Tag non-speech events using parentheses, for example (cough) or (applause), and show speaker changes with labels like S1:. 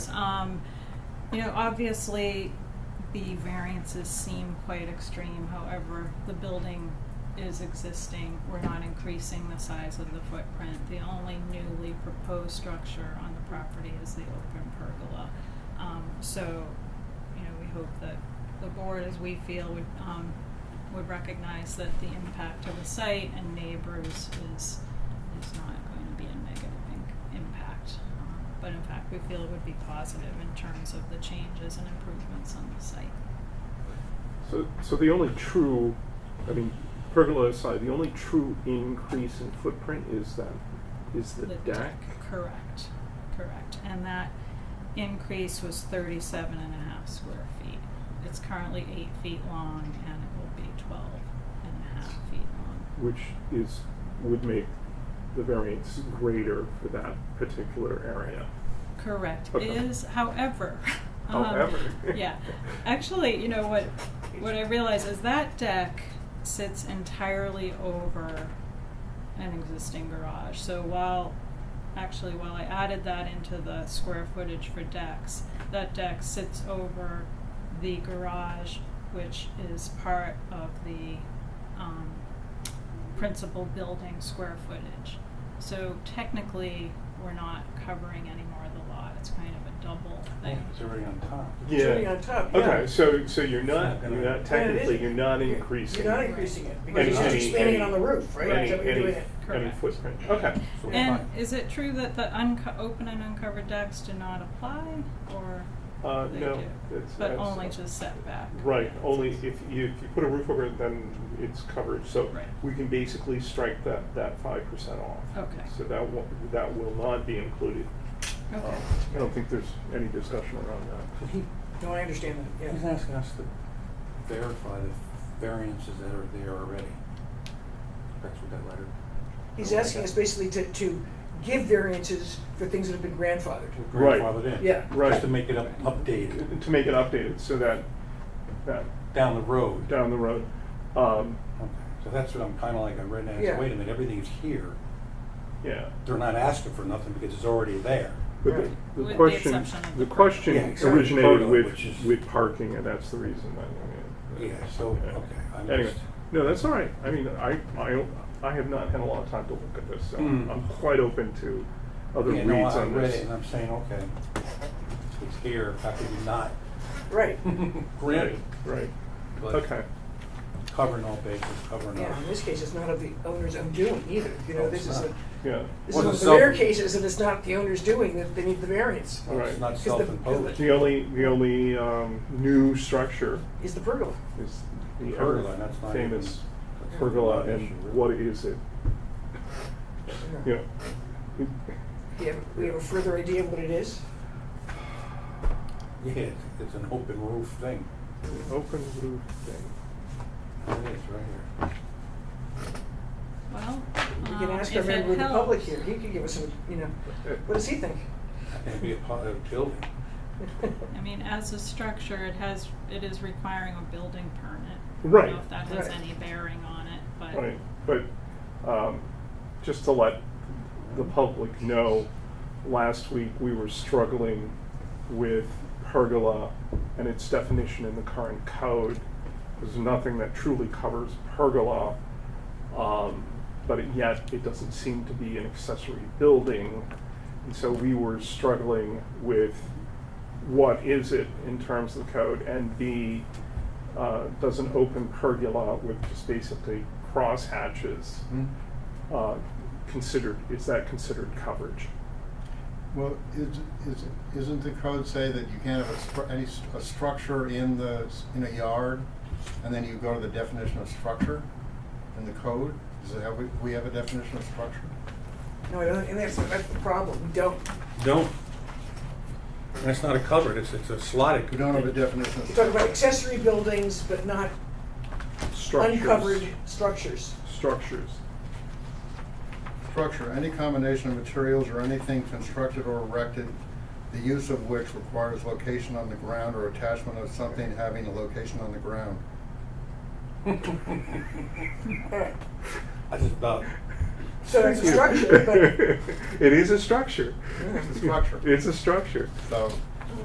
S1: Um, you know, obviously, the variances seem quite extreme, however, the building is existing. We're not increasing the size of the footprint. The only newly proposed structure on the property is the open pergola. Um, so, you know, we hope that the board, as we feel, would, um, would recognize that the impact to the site and neighbors is, is not going to be a negative in- impact. Um, But in fact, we feel would be positive in terms of the changes and improvements on the site.
S2: So, so the only true, I mean, pergola aside, the only true increase in footprint is that, is the deck?
S1: Correct, correct. And that increase was thirty-seven and a half square feet. It's currently eight feet long and it will be twelve and a half feet long.
S2: Which is, would make the variance greater for that particular area.
S1: Correct.
S2: Okay.
S1: Is however. (laughs) um,
S2: However.
S1: yeah. Actually, you know what? What I realize is that deck sits entirely over an existing garage. So while actually while I added that into the square footage for decks, that deck sits over the garage, which is part of the um, principal building square footage. So technically, we're not covering any more of the lot. It's kind of a double thing.
S2: Oh,
S3: It's already on top.
S2: Yeah.
S4: Sitting on top, yeah.
S2: Okay, so, so you're not,
S3: It's not
S2: you're
S3: gonna-
S2: not
S4: Yeah, it
S2: technically,
S4: is.
S2: you're not
S4: You're-
S2: increasing.
S4: You're not increasing it, because
S1: Any-
S4: you're just
S1: any-
S4: expanding it
S2: any-
S4: on the roof, right? Is
S2: Any,
S4: that what you're
S2: any,
S4: doing?
S2: any
S1: Correct.
S2: footprint, okay.
S3: So we're
S1: And
S3: fine.
S1: is it true that the unco- open and uncovered decks do not apply, or
S2: Uh,
S1: they
S2: no,
S1: do?
S2: it's-
S1: but
S2: that's-
S1: only just setback.
S2: Right, only if you, if you put a roof over it, then it's covered, so
S1: Right.
S2: we can basically strike that, that five percent off.
S1: Okay.
S2: So that will, that will not be included.
S1: Okay.
S2: I don't think there's any discussion around that.
S3: But he,
S4: No, I understand that,
S3: he's
S4: yeah.
S3: asking us to verify the variances that are there already. That's what that letter.
S4: He's asking us basically to, to give variances for things that have been grandfathered.
S2: Right.
S3: Grandfathered in.
S4: Yeah.
S2: Right.
S3: Just to make it up, updated
S2: To make it updated, so that, that,
S3: down the road.
S2: down the road, um,
S3: Okay. So that's what I'm kinda like, I read that, I
S4: Yeah.
S3: said, wait a minute, everything's here.
S2: yeah.
S3: They're not asking for nothing because it's already there.
S2: But
S4: Right.
S2: the,
S1: With
S2: the
S1: the
S2: question,
S1: exception of
S2: the
S1: the pergola.
S2: question
S3: Yeah, exactly.
S2: originated
S3: Pergola, which
S2: with,
S3: is-
S2: with parking, and that's the reason that, I mean.
S3: Yeah, so, okay, I
S2: Anyway,
S3: missed.
S2: no, that's all right. I mean, I, I, I have not had a lot of time to look at this, so
S3: Mm.
S2: I'm quite open to other
S3: Yeah, no,
S2: reads
S3: I
S2: on
S3: read it
S2: this.
S3: And I'm saying, okay, it's here, how could you not
S4: Right,
S3: (laughs)
S2: Right,
S3: grant it?
S2: right,
S3: But
S2: okay.
S3: Covering all bases, covering
S4: yeah,
S3: up.
S4: in this case, it's not of the owner's undoing either, you know,
S3: No,
S4: this
S3: it's
S4: is a,
S3: not.
S2: Yeah,
S4: this
S3: Well,
S4: is
S3: it's
S4: one of the rare
S3: self-
S4: cases that it's not the owner's doing, that they need the variance,
S3: Well, It's
S2: Right.
S3: not
S4: Because the-
S3: self-imposed.
S2: the only, the only, um, new structure
S4: is the pergola.
S2: is the
S3: Pergola, and that's
S2: ever
S3: not
S2: famous
S3: even- that's
S2: pergola,
S3: not an issue,
S2: and
S3: really.
S2: what is it? You know, it-
S4: Do you have, we have a further idea of what it is?
S3: Yeah, it's, it's an open roof thing.
S2: an open roof thing.
S3: It is, right here.
S1: Well,
S4: We
S1: um,
S4: can ask our
S1: if it
S4: member of the
S1: helps,
S4: public here, he could give us some, you know, what does he think?
S3: It'd be a positive building.
S1: I mean, as a structure, it has it is requiring a building permit. I
S2: Right.
S1: don't know if that has
S4: Right.
S1: any bearing on it, but
S2: Right, but um, just to let the public know, last week we were struggling with pergola and its definition in the current code. There's nothing that truly covers pergola, um, but it- yet it doesn't seem to be an accessory building. And so we were struggling with what is it in terms of the code, and B, uh, does an open pergola with just basically cross hatches
S5: Mm-hmm.
S2: uh, considered, is that considered coverage?
S5: Well, is, is, isn't the code say that you can't have a, stru- any, st- a structure in the, s- in a yard? And then you go to the definition of structure in the code? Does it have, we, we have a definition of structure?
S4: No, I don't- and that's, that's the problem, we don't.
S3: Don't. And it's not a cupboard, it's, it's a slotted.
S5: We don't have a definition of
S4: We talk about
S5: structure.
S4: accessory buildings, but not
S2: Structures.
S4: uncovered structures.
S2: Structures.
S5: Structure, any combination of materials or anything constructed or erected, the use of which requires location on the ground or attachment of something having a location on the ground.
S4: Alright,
S3: That's about,
S4: so it's a structure, but
S2: (laughs) It is a structure. (laughs)
S5: It's a structure.
S2: It's a structure.
S5: So